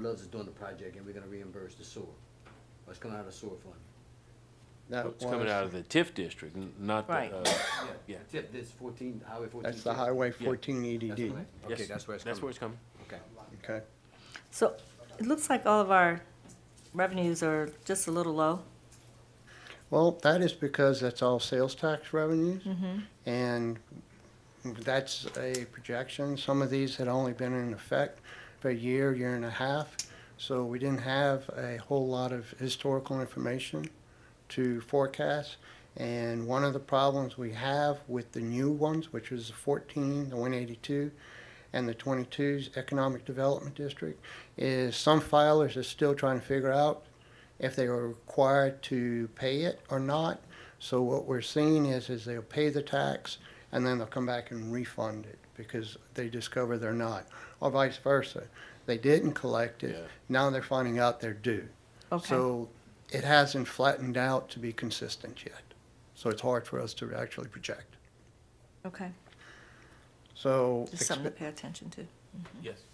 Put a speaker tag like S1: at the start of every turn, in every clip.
S1: Love's is doing the project, and we're gonna reimburse the sewer. Or it's coming out of the sewer fund.
S2: That
S3: It's coming
S2: was-
S3: out of the TIF district, n- not the,
S4: Right.
S3: uh, Yeah.
S1: Tip this fourteen, Highway fourteen.
S2: That's the
S1: tip.
S2: Highway
S3: Yeah.
S2: fourteen
S1: That's
S2: EDD,
S1: correct. Okay,
S3: yes,
S1: that's where it's
S3: That's where
S1: coming.
S3: it's coming.
S1: Okay.
S2: okay?
S4: So it looks like all of our revenues are just a little low.
S2: Well, that is because that's all sales tax revenues.
S1: Mm-hmm.
S2: And that's a projection. Some of these had only been in effect for a year, year and a half. So we didn't have a whole lot of historical information to forecast. And one of the problems we have with the new ones, which is the 14, the 182, and the 22's Economic Development District, is some filers are still trying to figure out if they were required to pay it or not. So what we're seeing is, is they'll pay the tax and then they'll come back and refund it because they discover they're not, or vice versa. They didn't collect
S3: Yeah.
S2: it, now they're finding out they're due.
S4: Okay,
S2: So it hasn't flattened out to be consistent yet. So it's hard for us to actually project.
S4: okay.
S2: So.
S4: Just something
S2: expe-
S4: to pay attention to.
S3: Yes.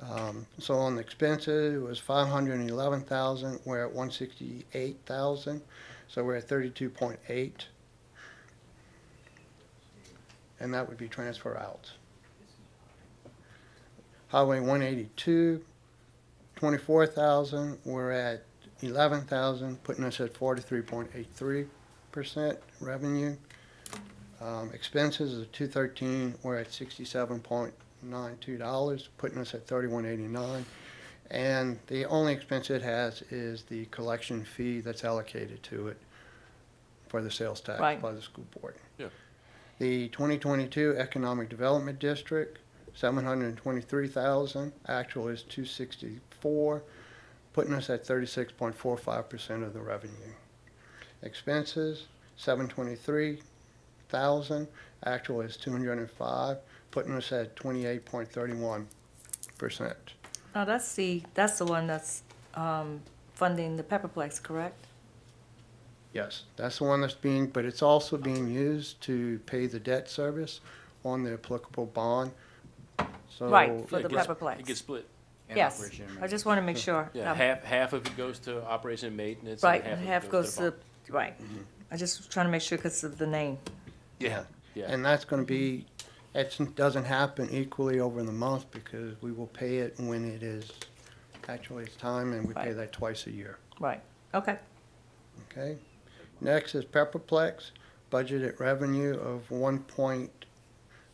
S2: Um, So on the expenses, it was five hundred and eleven thousand, we're at one sixty-eight thousand, so we're at thirty-two point eight. And that would be transfer out. Highway one eighty-two, twenty-four thousand, we're at eleven thousand, putting us at forty-three point eight three percent revenue. Um, Expenses of two thirteen, we're at sixty-seven point nine two dollars, putting us at thirty-one eighty-nine. And the only expense it has is the collection fee that's allocated to it for the sales tax
S4: Right.
S2: by the school board.
S3: Yeah.
S2: The twenty twenty-two Economic Development District, seven hundred and twenty-three thousand, actual is two sixty-four, putting us at thirty-six point four five percent of the revenue. Expenses, seven twenty-three thousand, actual is two hundred and five, putting us at twenty-eight point thirty-one percent.
S4: Now, that's the, that's the one that's um, funding the Pepperplex, correct?
S2: Yes, that's the one that's being, but it's also being used to pay the debt service on the applicable bond. So
S4: Right. For
S3: Yeah, it
S4: the
S3: gets-
S4: Pepperplex.
S3: It gets split.
S1: And
S4: Yes.
S1: operation and
S4: I just want to make sure.
S3: Yeah,
S4: Um,
S3: half, half of it goes to operation and maintenance.
S4: Right,
S3: of
S4: and
S3: it
S4: half goes
S3: the
S4: to,
S3: bond.
S4: right. I just trying to make sure because of the name.
S2: Yeah.
S3: Yeah.
S2: And that's gonna be, it doesn't happen equally over the month because we will pay it when it is actually it's time and we pay
S4: Right.
S2: that twice a year,
S4: Right, okay.
S2: okay? Next is Pepperplex, budgeted revenue of one point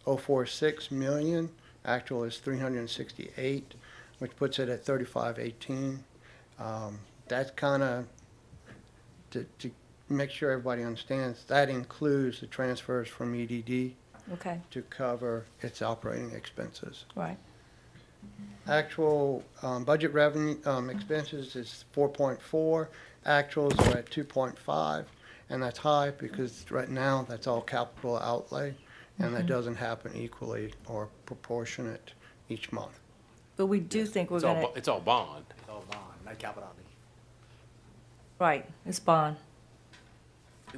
S2: oh four six million, actual is three hundred and sixty-eight, which puts it at thirty-five eighteen. Um, that's kinda, to, to make sure everybody understands, that includes the transfers from EDD
S4: Okay,
S2: to cover its operating expenses.
S4: right,
S2: Actual um, budget revenue, um, expenses is four point four, actuals are at two point five, and that's high because right now, that's all capital outlay, and that doesn't happen equally or proportionate each month.
S4: but we do think we're
S3: It's all,
S4: gonna,
S3: bo- it's all bond.
S1: It's all bond, not capital outlay.
S4: right, it's bond,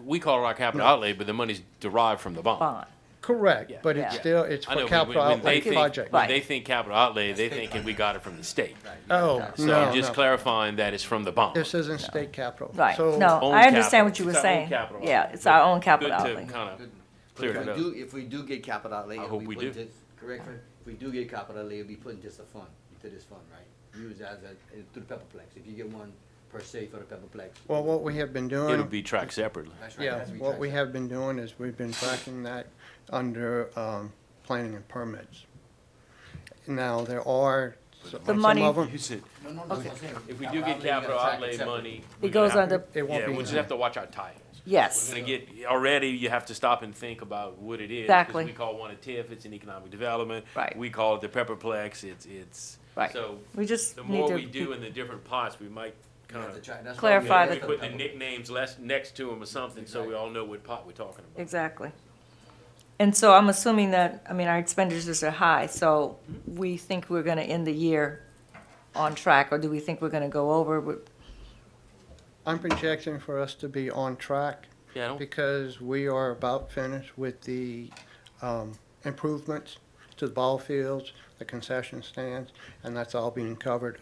S3: We call it our capital outlay, but the money's derived from the bond.
S4: bond,
S2: Correct,
S3: Yeah.
S2: but it's
S4: Yeah.
S2: still, it's
S3: I know,
S2: for
S3: when-
S2: capital
S3: when they
S2: outlay
S3: think-
S2: project.
S3: When
S4: Right.
S3: they think capital outlay, they thinking we got it from the state.
S2: Oh,
S3: So
S2: no,
S3: I'm just
S2: no,
S3: clarifying that it's from the bond.
S2: this isn't state capital.
S4: right.
S2: So-
S4: No,
S3: Own
S4: I understand what
S3: capital.
S4: you were
S3: It's our own
S4: saying.
S3: capital
S4: Yeah,
S3: outlay.
S4: it's our own
S3: Good
S4: capital
S3: to
S4: outlay.
S3: kind of
S1: Good. But
S3: clear
S1: If
S3: it
S1: we
S3: up.
S1: do, if we do get capital outlay.
S3: I
S1: it'll
S3: hope
S1: be
S3: we
S1: put
S3: do.
S1: to- Correct, Fred? if we do get capital outlay, it'll be put into the fund, into this fund, right? Use as a, through the Pepperplex, if you get one per se for the Pepperplex.
S2: Well, what we have been doing.
S3: It'll be tracked separately.
S1: That's right,
S2: Yeah,
S1: that's
S2: what we
S1: track.
S2: have been doing is we've been tracking that under um, planning and permits. Now, there are s-
S3: The
S2: some
S4: money-
S2: of them,
S3: Use it.
S1: No, no, no, that's what I'm saying.
S3: If we do get
S1: you gotta
S3: capital
S1: track it
S3: outlay
S1: separate.
S3: money.
S4: It goes under,
S2: it won't
S3: Yeah,
S2: be.
S3: we just have to watch our titles.
S4: yes,
S3: We're gonna get, already you have to stop and think about what it is. 'cause
S4: Exactly.
S3: We call one a TIF, it's an economic development.
S4: Right.
S3: We call it the Pepperplex, it's, it's.
S4: Right.
S3: So
S4: we just
S3: the
S4: need
S3: more we do
S4: to,
S3: in the different pots, we
S1: You
S3: might kind
S1: have to
S3: of.
S1: track- that's why we
S4: Clarify
S1: have
S3: We
S4: the-
S3: put the
S1: Pepperplex.
S3: nicknames less, next to them or something, so we all know what pot we're talking about.
S4: exactly. And so I'm assuming that, I mean, our expenditures are high, so we think we're gonna end the year on track, or do we think we're gonna go over? We-
S2: I'm projecting for us to be on track
S3: Yeah, I don't-
S2: because we are about finished with the um, improvements to the ball fields, the concession stands, and that's all being covered